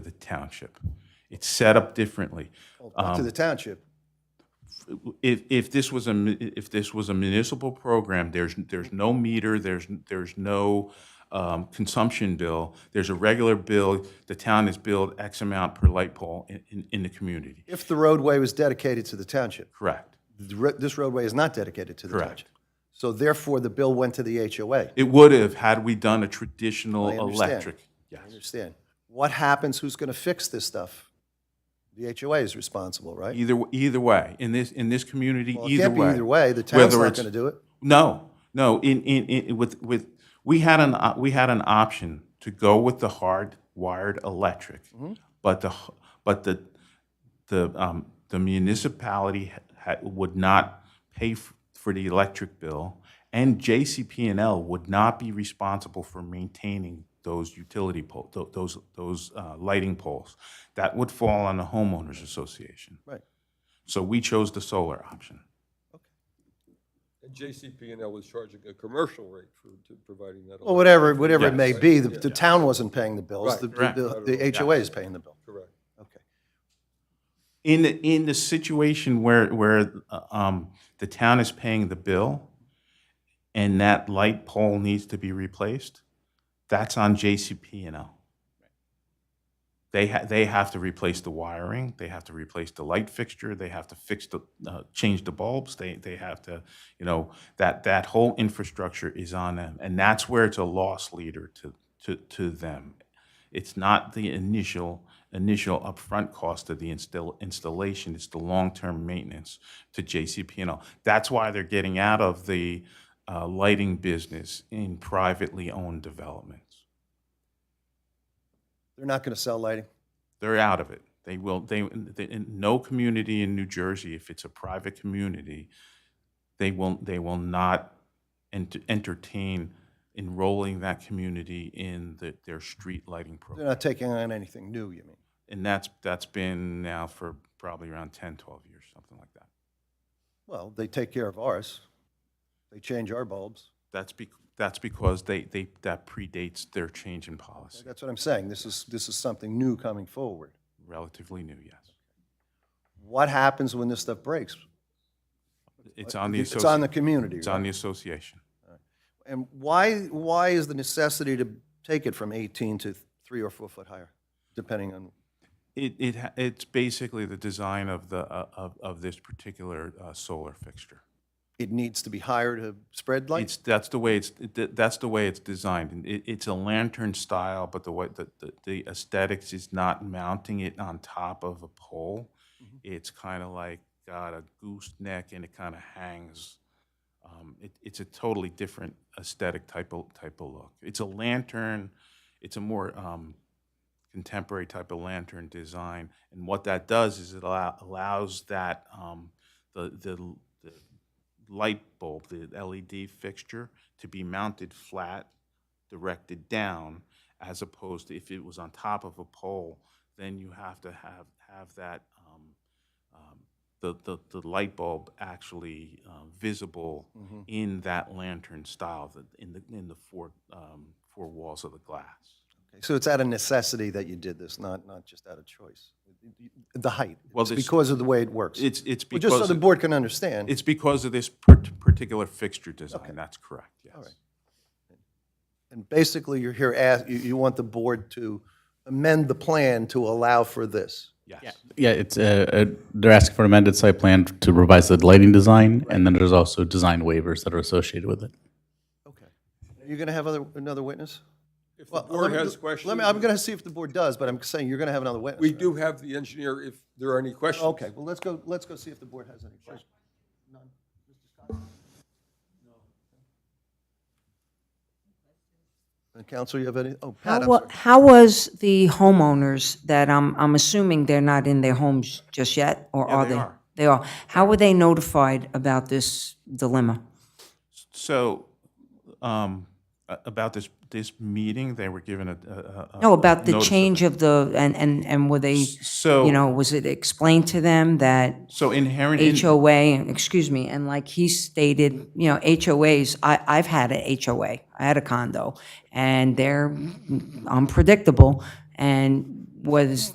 township. It's set up differently. Not Um, to the township. If, if this was a, mu- if this was a municipal program, there's, there's no meter, there's, there's no um, consumption bill. There's a regular bill, the town is billed X amount per light pole in, in, in the community. If the roadway was dedicated to the township, Correct, The ro- this roadway is not dedicated to the correct. township. So therefore, the bill went to the HOA. It would have had we done a traditional I understand. electric. I Yes. understand. What happens? Who's going to fix this stuff? The HOA is responsible, right? Either, either way, in this, in this community, Well, it E-, either can't be way. either way. The town's Whether not it's- going to do it. No, no. In, in, in with with we had an op- we had an option to go with the hard wired electric, but the h- but the the um, the municipality ha- would not pay f- for the electric bill, and JCP&L would not be responsible for maintaining those utility pole tho- those those uh, lighting poles. That would fall on the homeowners association. Right. So we chose the solar option. And JCP&L was charging a commercial rate for, to providing that. Well, whatever, whatever it may Yes. be, the, Yeah. the town wasn't paying the bills. Right. The, Correct. the, the HOA is paying the bill. Correct. Okay. In the, in the situation where, where uh, um, the town is paying the bill and that light pole needs to be replaced, that's on JCP&L. They, ha- they have to replace the wiring, they have to replace the light fixture, they have to fix the, uh, change the bulbs, they, they have to, you know, that, that whole infrastructure is on them. And that's where it's a loss leader to, to, to them. It's not the initial, initial upfront cost of the install, installation, it's the long-term maintenance to JCP&L. That's why they're getting out of the uh, lighting business in privately owned developments. They're not going to sell lighting. They're out of it. They will, they, they- in no community in New Jersey, if it's a private community, they will, they will not ent- entertain enrolling that community in the- their street lighting program. They're not taking on anything new, you mean? And that's, that's been now for probably around 10, 12 years, something like that. Well, they take care of ours. They change our bulbs. That's bec, that's because they, they, that predates their change in policy. That's what I'm saying. This is, this is something new coming forward. Relatively new, yes. What happens when this stuff breaks? It's on the, It's on the associ- community. it's on the association. right? And why, why is the necessity to take it from 18 to three or four foot higher, depending on, It, it, ha- it's basically the design of the, uh, of, of this particular uh, solar fixture. it needs to be higher to spread light? It's, that's the way it's, it- that- that's the way it's designed. And It, it's a lantern style, but the way, the, the- the aesthetics is not mounting it on top of a pole. It's kind of like got a gooseneck and it kind of hangs. Um, It, it's a totally different aesthetic type of, type of look. It's a lantern, it's a more um, contemporary type of lantern design. And what that does is it allow- allows that, um, the, the, the light bulb, the LED fixture, to be mounted flat, directed down, as opposed to if it was on top of a pole, then you have to have, have that, um, um, the, the, the light bulb actually um, visible Mm-hmm. in that lantern style, that- in the, in the four, um, four walls of the glass. Okay, So it's out of necessity that you did this, not, not just out of choice. The height, Well, it's this- because of the way it works. It's, it's Well, Just so because, the board can understand. it's because of this par- particular fixture design, that's correct, yes. right. And basically, you're here, ask- you, you want the board to amend the plan to allow for this. Yes. Yeah, it's, uh, uh, they're asking for an amended site plan to revise the lighting design, and then there's also design waivers that are associated with it. Okay. Are you going to have other, another witness? If the Well, board let me- has Let questions, me, I'm going to see if the board does, but I'm saying you're going to have another witness. we right? do have the engineer if there are any questions. Okay, well, let's go, let's go see if the board has any questions. None. Mr. Scott? No. Counsel, you have any? Oh, How Pat, I'm wa- sorry. How was the homeowners that, I'm, I'm assuming they're not in their homes just yet, or are they? are. They are. How were they notified about this dilemma? So, um, a- about this, this meeting, they were given a, a- a- a- No, about the notice of change of the, and, and, and were they, you So, know, was it explained to them that so inherent, in- HOA, excuse me, and like he stated, you know, HOAs, I, I've had a HOA, I had a condo, and they're unpredictable, and was